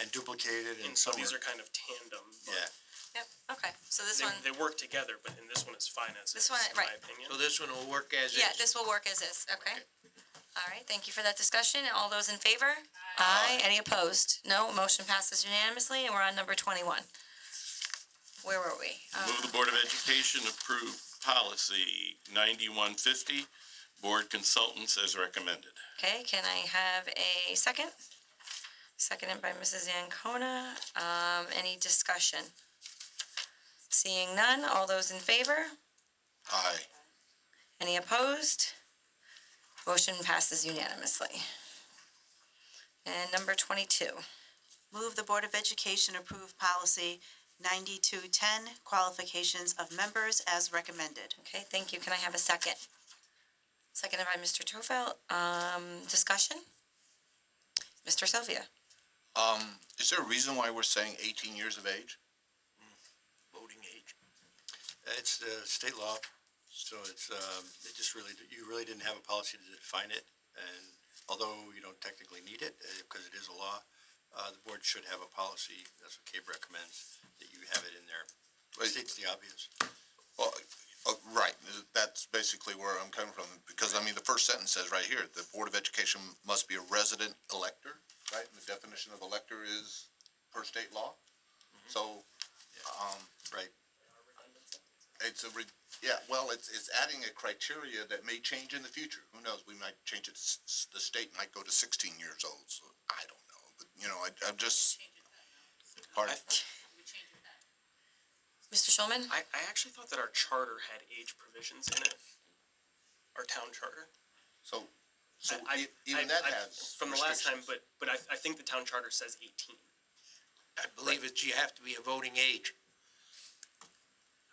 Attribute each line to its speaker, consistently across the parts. Speaker 1: and duplicated and
Speaker 2: And so
Speaker 1: somewhere.
Speaker 2: these are kind of tandem. but
Speaker 1: Yeah,
Speaker 3: Yep, okay, so this one,
Speaker 2: They, they work together, but in this one is finances,
Speaker 3: This one,
Speaker 2: in my
Speaker 3: right.
Speaker 2: opinion.
Speaker 4: So this one will work as is?
Speaker 3: yeah, this will work as is, okay? All right, thank you for that discussion. All those in favor? Aye. Any opposed? No, motion passes unanimously, and we're on number twenty-one. Where were we? Uh,
Speaker 5: Move the Board of Education approve policy ninety-one fifty, board consultants as recommended.
Speaker 3: Okay, can I have a second? Seconded by Mrs. Ancona. Um, any discussion? Seeing none, all those in favor?
Speaker 5: Aye.
Speaker 3: Any opposed? Motion passes unanimously. And number twenty-two.
Speaker 6: Move the Board of Education approve policy 9210, qualifications of members as recommended.
Speaker 3: Okay, thank you. Can I have a second? Seconded by Mr. Tofel. Um, discussion? Mr. Sylvia?
Speaker 7: Um, is there a reason why we're saying eighteen years of age?
Speaker 4: Voting age.
Speaker 1: it's the state law, so it's, um, it just really, you really didn't have a policy to define it. And although you don't technically need it, uh, because it is a law, uh, the board should have a policy, that's what CABE recommends, that you have it in there.
Speaker 7: Wait.
Speaker 1: States the obvious.
Speaker 7: Well, uh, right, that's basically where I'm coming from, because I mean, the first sentence says right here, the Board of Education must be a resident elector, right? And the definition of elector is per state law. So, um,
Speaker 1: Right.
Speaker 7: it's a, re- yeah, well, it's, it's adding a criteria that may change in the future. Who knows? We might change it, s- s- the state might go to sixteen years old, so I don't know. But, you know, I, I'm just. Pardon?
Speaker 3: Mr. Schulman?
Speaker 2: I, I actually thought that our charter had age provisions in it. Our town charter.
Speaker 7: So, so
Speaker 2: I- I-
Speaker 7: e- even
Speaker 2: I-
Speaker 7: that
Speaker 2: I-
Speaker 7: has.
Speaker 2: From the last time,
Speaker 7: restrictions.
Speaker 2: but, but I, I think the town charter says eighteen.
Speaker 4: I believe it's, you have to be a voting age.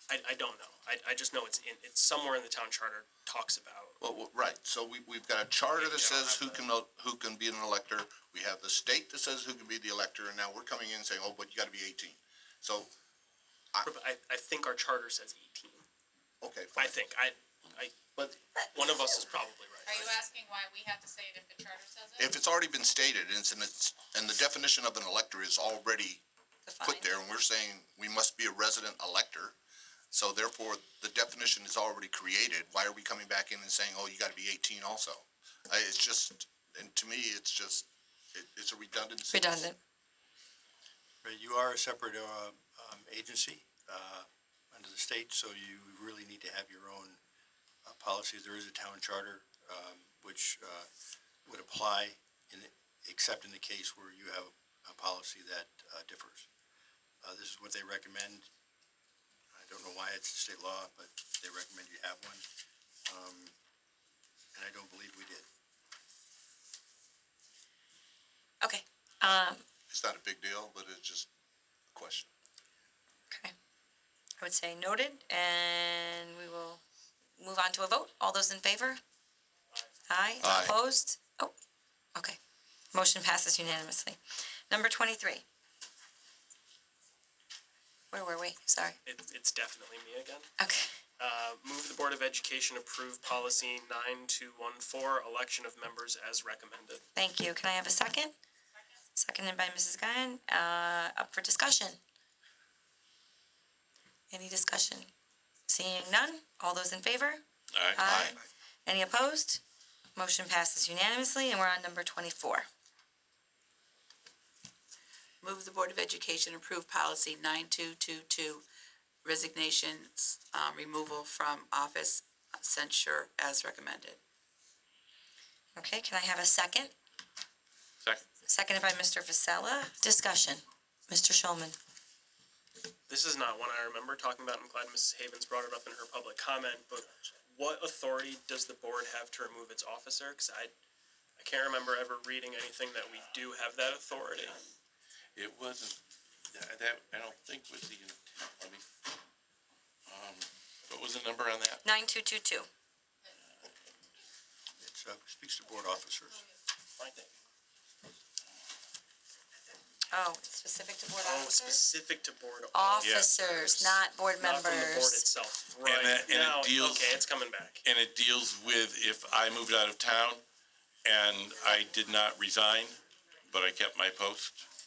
Speaker 2: I, I don't know. I, I just know it's in, it's somewhere in the town charter talks about.
Speaker 7: Well, well, right, so we, we've got a charter
Speaker 2: Yeah,
Speaker 7: that
Speaker 2: you don't have
Speaker 7: says who
Speaker 2: the-
Speaker 7: can, el- who can be an elector, we have the state that says who can be the elector, and now we're coming in saying, oh, but you gotta be eighteen. So,
Speaker 2: I, I think our charter says eighteen.
Speaker 7: okay, fine.
Speaker 2: I think, I, I,
Speaker 7: But
Speaker 2: one of us is probably
Speaker 8: Are you
Speaker 2: right.
Speaker 8: asking why we have to say it if the charter says it?
Speaker 7: if it's already been stated, and it's, in its- and the definition of an elector is already put there, and we're saying we must be a resident elector, so therefore, the definition is already created, why are we coming back in and saying, oh, you gotta be eighteen also? I, it's just, and to me, it's just, it, it's a redundancy.
Speaker 3: Redundant.
Speaker 1: Right, you are a separate, uh, um, agency, uh, under the state, so you really need to have your own, uh, policies. There is a town charter, um, which, uh, would apply in, except in the case where you have a policy that, uh, differs. Uh, this is what they recommend. I don't know why it's state law, but they recommend you have one. Um, and I don't believe we did.
Speaker 3: Okay, um,
Speaker 7: It's not a big deal, but it's just a question.
Speaker 3: okay. I would say noted, and we will move on to a vote. All those in favor? Aye.
Speaker 7: Aye.
Speaker 3: Opposed? Oh, okay. Motion passes unanimously. Number twenty-three. Where were we? Sorry.
Speaker 2: It, it's definitely me again.
Speaker 3: Okay.
Speaker 2: Uh, move the Board of Education approve policy nine two one four, election of members as recommended.
Speaker 3: Thank you. Can I have a second? Seconded by Mrs. Guyan. Uh, up for discussion? Any discussion? Seeing none, all those in favor? Aye. Any opposed? Motion passes unanimously, and we're on number twenty-four.
Speaker 9: Move the Board of Education approve policy 9222, resignations, um, removal from office, censure as recommended.
Speaker 3: Okay, can I have a second?
Speaker 5: Second.
Speaker 3: Seconded by Mr. Vasella. Discussion. Mr. Schulman.
Speaker 2: This is not one I remember talking about. I'm glad Mrs. Havens brought it up in her public comment, but what authority does the board have to remove its officer? Cause I, I can't remember ever reading anything that we do have that authority.
Speaker 5: It wasn't, that, that, I don't think was the, let me, um, what was the number on that?
Speaker 3: Nine-two-two-two.
Speaker 1: It's, uh, speaks to board officers.
Speaker 2: I think.
Speaker 3: Oh, it's specific to board
Speaker 2: Oh,
Speaker 3: officers?
Speaker 2: specific to board.
Speaker 3: Officers, not board
Speaker 2: Not from the board
Speaker 3: members.
Speaker 2: itself, right,
Speaker 5: that- and it
Speaker 2: now,
Speaker 5: deals-
Speaker 2: okay, it's coming back.
Speaker 5: And it deals with if I moved out of town and I did not resign, but I kept my post.